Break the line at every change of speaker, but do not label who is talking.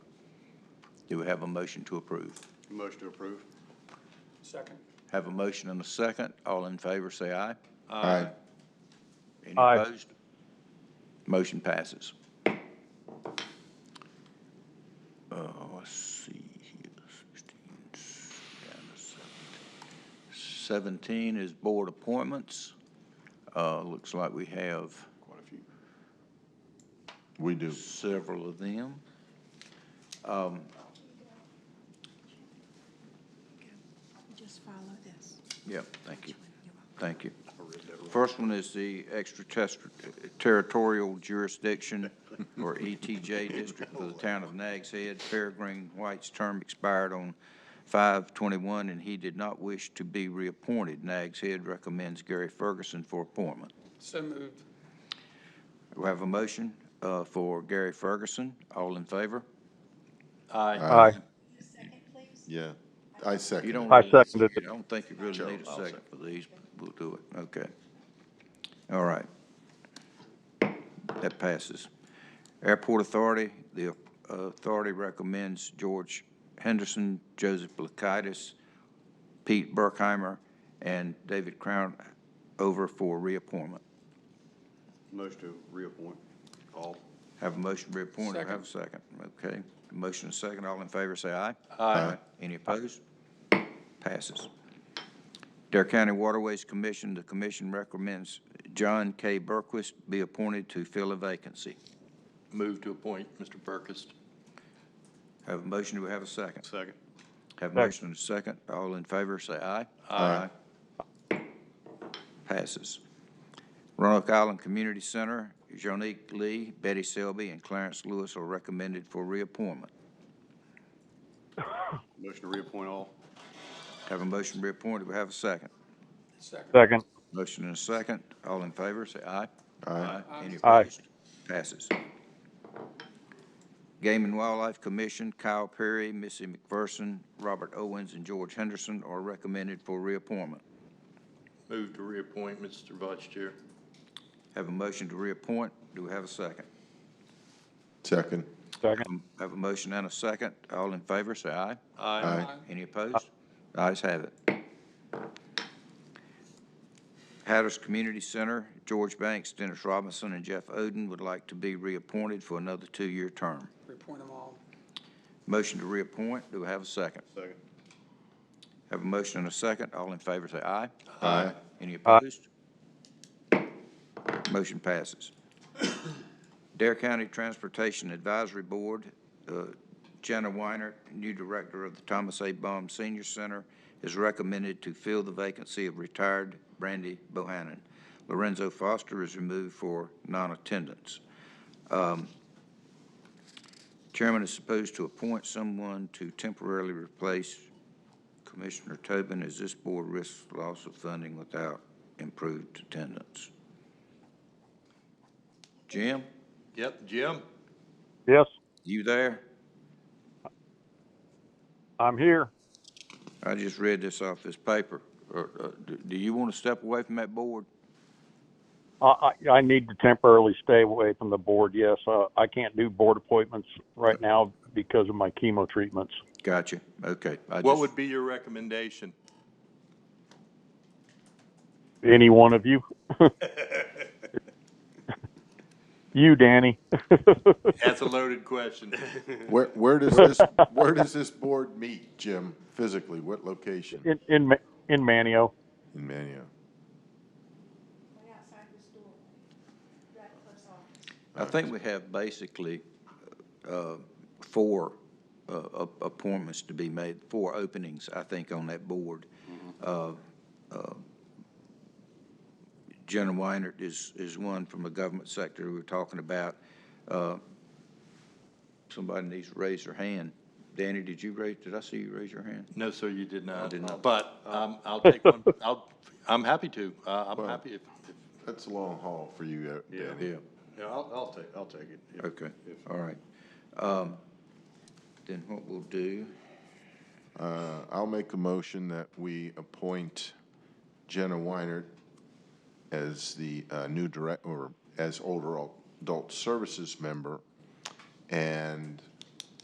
Do we have a motion to approve?
Motion to approve.
Second.
Have a motion and a second. All in favor, say aye.
Aye.
Any
Aye.
opposed? Motion passes. Uh, let's see here, 16, down to 17. 17 is board appointments. Uh, looks like we have
Quite a few.
We do.
several of them.
Just follow this.
Yep, thank you,
You're welcome.
thank you. First one is the extraterritorial jurisdiction, or ETJ district for the town of Nags Head. Peregrine White's term expired on 5/21, and he did not wish to be reappointed. Nags Head recommends Gary Ferguson for appointment.
So moved.
We have a motion uh, for Gary Ferguson. All in favor?
Aye.
The second, please?
Yeah, I
You
second
don't
it.
I
really need-
seconded it.
I don't think you really
Sure,
need a
I'll
second for these, but we'll do it, okay. All right. That passes. Airport Authority, the uh, authority recommends George Henderson, Joseph Blakaitis, Pete Burkheimer, and David Crown over for reappointment.
Motion to reappoint. All.
Have a motion to reappoint, or have a second, okay? Motion and second, all in favor, say aye.
Aye.
Any opposed? Passes. Dare County Waterways Commission, the commission recommends John K. Burquist be appointed to fill a vacancy.
Move to appoint Mr. Burkus.
Have a motion, do we have a second?
Second.
Have a motion and a second, all in favor, say aye.
Aye.
Passes. Roanoke Island Community Center, Jonique Lee, Betty Selby, and Clarence Lewis are recommended for reappointment.
Motion to reappoint all.
Have a motion reappointed, we have a second.
Second.
Second,
Motion and a second. All in favor, say aye.
Aye.
Any
Aye.
opposed? Passes. Game and Wildlife Commission, Kyle Perry, Missy McPherson, Robert Owens, and George Henderson are recommended for reappointment.
Move to reappoint Mr. Vice Chair.
Have a motion to reappoint. Do we have a second?
Second,
second,
Have a motion and a second. All in favor, say aye.
Aye.
Any opposed? The ayes have it. Hatters Community Center, George Banks, Dennis Robinson, and Jeff Oden would like to be reappointed for another two-year term.
Reappoint them all.
Motion to reappoint, do we have a second?
Second.
Have a motion and a second, all in favor say aye.
Aye.
Any
Aye.
opposed? Motion passes. Dare County Transportation Advisory Board, uh, Jenna Weiner, new director of the Thomas A. Baum Senior Center, is recommended to fill the vacancy of retired Brandy Bohannon. Lorenzo Foster is removed for non-attendance. Um, Chairman is supposed to appoint someone to temporarily replace Commissioner Tobin. Is this board risks loss of funding without improved attendance? Jim,
Yep, Jim?
yes,
you there?
I'm here.
I just read this off this paper. Or, uh, do- Do you want to step away from that board?
I, I, I need to temporarily stay away from the board, yes. Uh, I can't do board appointments right now because of my chemo treatments.
Gotcha, okay. I
What
just-
would be your recommendation?
Any one of you? You, Danny.
That's a loaded question.
where, where does this, where does this board meet, Jim, physically? What location?
In, in, Ma- in Manio.
In Manio.
Right outside the store, right close office.
I think we have basically uh, four uh, a- appointments to be made, four openings, I think, on that board. Uh, uh, Jenna Weinert is, is one from the government sector we were talking about. Uh, Somebody needs to raise their hand. Danny, did you raise, did I see you raise your hand?
No, sir, you did not.
did not.
But um, I'll take one, I'll, I'm happy to. Uh, I'm
Well-
happy if, if-
That's a long haul for you, uh,
Yeah.
Danny.
Yeah, I'll, I'll take, I'll take it. If-
Okay,
if-
all right. Um, Then what we'll do,
Uh, I'll make a motion that we appoint Jenna Weinert as the uh, new direct, or as older adult services member, and